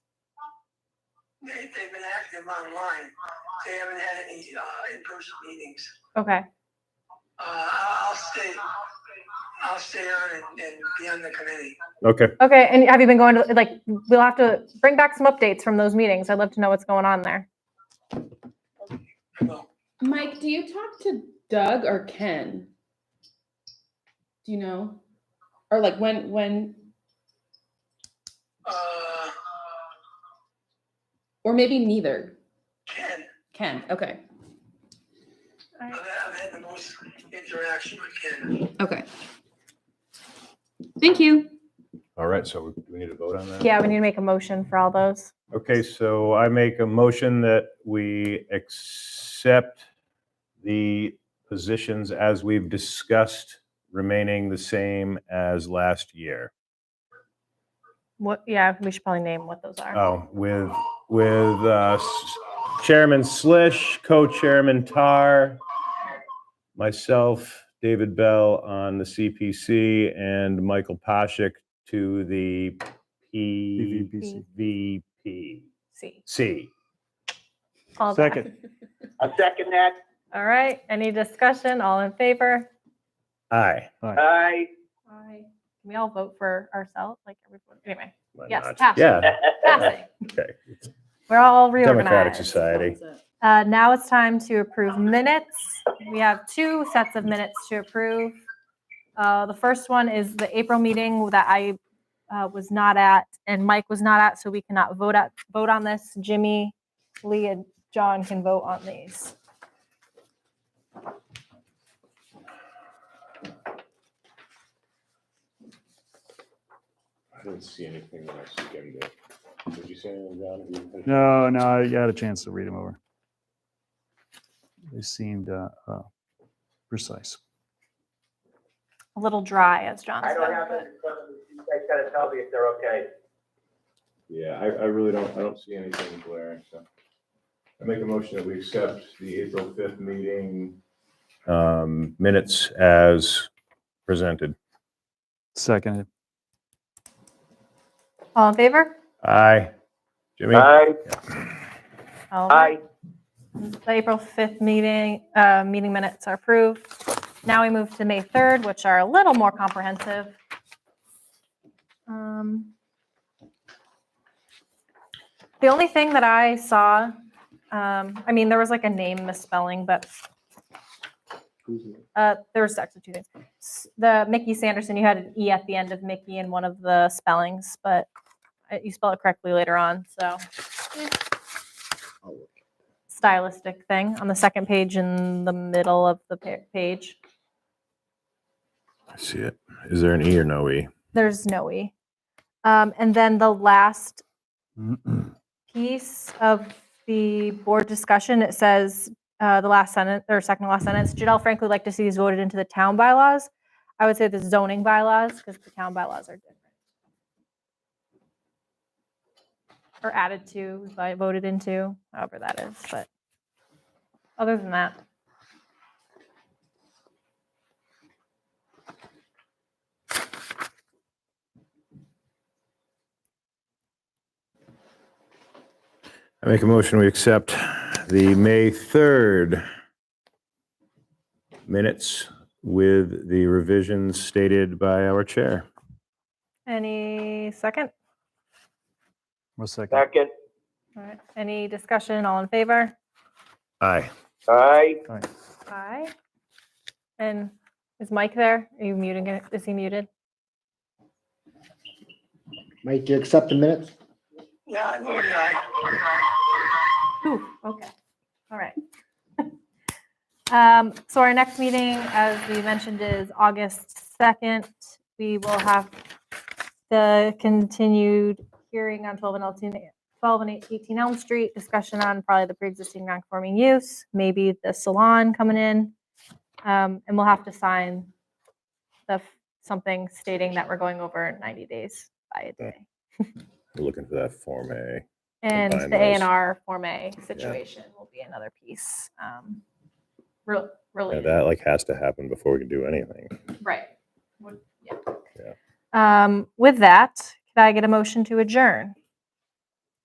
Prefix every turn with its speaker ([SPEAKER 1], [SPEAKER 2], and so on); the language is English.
[SPEAKER 1] They, they've been active online. They haven't had any uh, in-person meetings.
[SPEAKER 2] Okay.
[SPEAKER 1] Uh, I'll I'll stay, I'll stay on and, and be on the committee.
[SPEAKER 3] Okay.
[SPEAKER 2] Okay. And have you been going to like? We'll have to bring back some updates from those meetings. I'd love to know what's going on there.
[SPEAKER 1] Well,
[SPEAKER 4] Mike, do you talk to Doug or Ken? Do you know? Or like when when
[SPEAKER 1] uh,
[SPEAKER 4] or maybe neither.
[SPEAKER 1] Ken,
[SPEAKER 4] Ken. Okay.
[SPEAKER 1] I've had- I've had the most interaction with Ken.
[SPEAKER 4] Okay. Thank you.
[SPEAKER 3] All right. So we- do we need to vote on that?
[SPEAKER 2] Yeah, we need to make a motion for all those.
[SPEAKER 3] Okay. So I make a motion that we accept the positions as we've discussed, remaining the same as last year.
[SPEAKER 2] What? Yeah, we should probably name what those are.
[SPEAKER 3] Oh, with, with uh, s- Chairman Slish, Co-Chairman Tar, myself, David Bell on the CPC, and Michael Poshik to the
[SPEAKER 5] PVPC.
[SPEAKER 3] PVPC.
[SPEAKER 2] C.
[SPEAKER 3] C.
[SPEAKER 2] All that.
[SPEAKER 5] Second.
[SPEAKER 6] I second that.
[SPEAKER 2] All right. Any discussion? All in favor?
[SPEAKER 3] Aye.
[SPEAKER 6] Aye.
[SPEAKER 2] Aye. Can we all vote for ourselves? Like everyone. Anyway,
[SPEAKER 3] Why
[SPEAKER 2] Yes,
[SPEAKER 3] not?
[SPEAKER 2] pass.
[SPEAKER 3] Yeah,
[SPEAKER 2] passing.
[SPEAKER 3] okay. It's
[SPEAKER 2] We're all
[SPEAKER 3] Democratic
[SPEAKER 2] reorganized.
[SPEAKER 3] society.
[SPEAKER 2] Uh, now it's time to approve minutes. We have two sets of minutes to approve. Uh, the first one is the April meeting that I uh, was not at and Mike was not at, so we cannot vote at, vote on this. Jimmy, Lee, and John can vote on these.
[SPEAKER 7] I didn't see anything when I skimmed it. Did you see anything, John? Have you-
[SPEAKER 5] No, no, I had a chance to read them over. They seemed uh, uh, precise.
[SPEAKER 2] A little dry, as John
[SPEAKER 6] I
[SPEAKER 2] said.
[SPEAKER 6] don't have it
[SPEAKER 2] but-
[SPEAKER 6] in front of me. You guys gotta tell me if they're okay.
[SPEAKER 7] Yeah, I, I really don't, I don't see anything glaring, so. I make a motion that we accept the April fifth meeting.
[SPEAKER 3] Um, Minutes as presented.
[SPEAKER 5] Seconded.
[SPEAKER 2] All in favor?
[SPEAKER 3] Aye. Jimmy?
[SPEAKER 6] Aye.
[SPEAKER 2] All right.
[SPEAKER 6] Aye.
[SPEAKER 2] The April 5th meeting, uh, meeting minutes are approved. Now we move to May 3rd, which are a little more comprehensive. Um, The only thing that I saw, um, I mean, there was like a name misspelling, but uh, there was actually two things. S- The Mickey Sanderson, you had an E at the end of Mickey in one of the spellings, but uh, you spell it correctly later on, so stylistic thing on the second page in the middle of the pa- page.
[SPEAKER 3] I See it. Is there an E or no E?
[SPEAKER 2] There's no E. Um, and then the last piece of the board discussion, it says, uh, the last sentence, or second to last sentence, Janelle frankly would like to see these voted into the town bylaws. I would say the zoning bylaws, because the town bylaws are different. Or added to, by- voted into, however that is, but other than that.
[SPEAKER 3] I make a motion, we accept the May 3rd minutes with the revisions stated by our chair.
[SPEAKER 2] Any second?
[SPEAKER 5] One second.
[SPEAKER 6] Second.
[SPEAKER 2] All right, any discussion, all in favor?
[SPEAKER 3] Aye.
[SPEAKER 6] Aye.
[SPEAKER 2] Aye. And is Mike there? Are you muting it? Is he muted?
[SPEAKER 8] Mike, do you accept the minutes?
[SPEAKER 1] Yeah, I voted aye.
[SPEAKER 2] Ooh, okay. All right. Um, so our next meeting, as we mentioned, is August 2nd. We will have the continued hearing on 12 and 18, 12 and 18 Elm Street, discussion on probably the pre-existing non-conforming use, maybe the salon coming in. Um, and we'll have to sign the, f- something stating that we're going over 90 days by a day.
[SPEAKER 3] We're looking for that Form A.
[SPEAKER 2] And
[SPEAKER 3] combine
[SPEAKER 2] the A and
[SPEAKER 3] those.
[SPEAKER 2] R Form A situation will be another piece. um, rel-
[SPEAKER 3] Yeah,
[SPEAKER 2] Related,
[SPEAKER 3] That like has to happen before we can do anything.
[SPEAKER 2] right. Would- yeah. Um, With that, could I get a motion to adjourn?